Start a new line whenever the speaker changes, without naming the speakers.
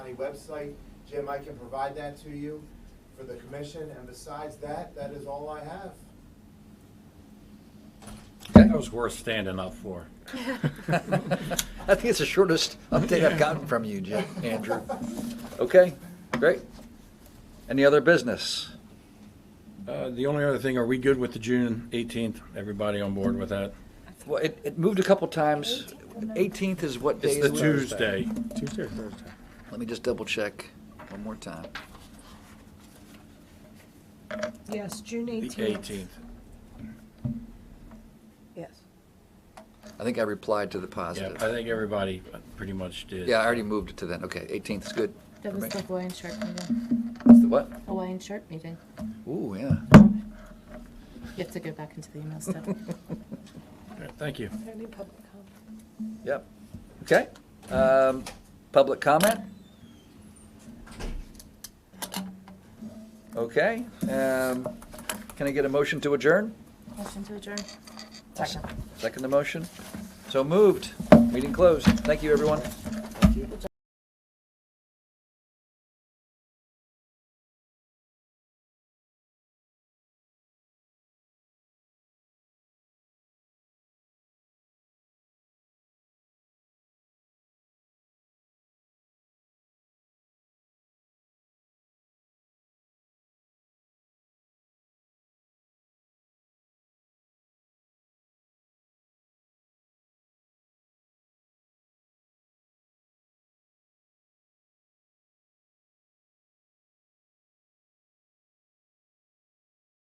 County website. Jim, I can provide that to you for the commission, and besides that, that is all I have.
That was worth standing up for.
I think it's the shortest update I've gotten from you, Jim, Andrew. Okay, great. Any other business?
Uh, The only other thing, are we good with the June 18th? Everybody on board with that?
Well, it, it moved a couple times. Eighteenth is what day?
It's
is
the
it?
Tuesday.
Tuesday or Thursday?
Let me just double check one more time.
Yes, June
The
eighteenth.
18th.
Yes.
I think I replied to the
Yeah,
positive.
I think everybody pretty much did.
Yeah, I already moved it to then. Okay, eighteenth is good.
That
for
was
me.
the Hawaiian shirt meeting.
That's the what?
Hawaiian shirt meeting.
Ooh, yeah.
You have to go back into the email stuff.
All right, Thank you.
Any public comment?
Yep. Okay. Um, public comment? Okay. Um, can I get a motion to adjourn?
Motion to adjourn.
Second the motion? So moved. Meeting closed. Thank you, everyone.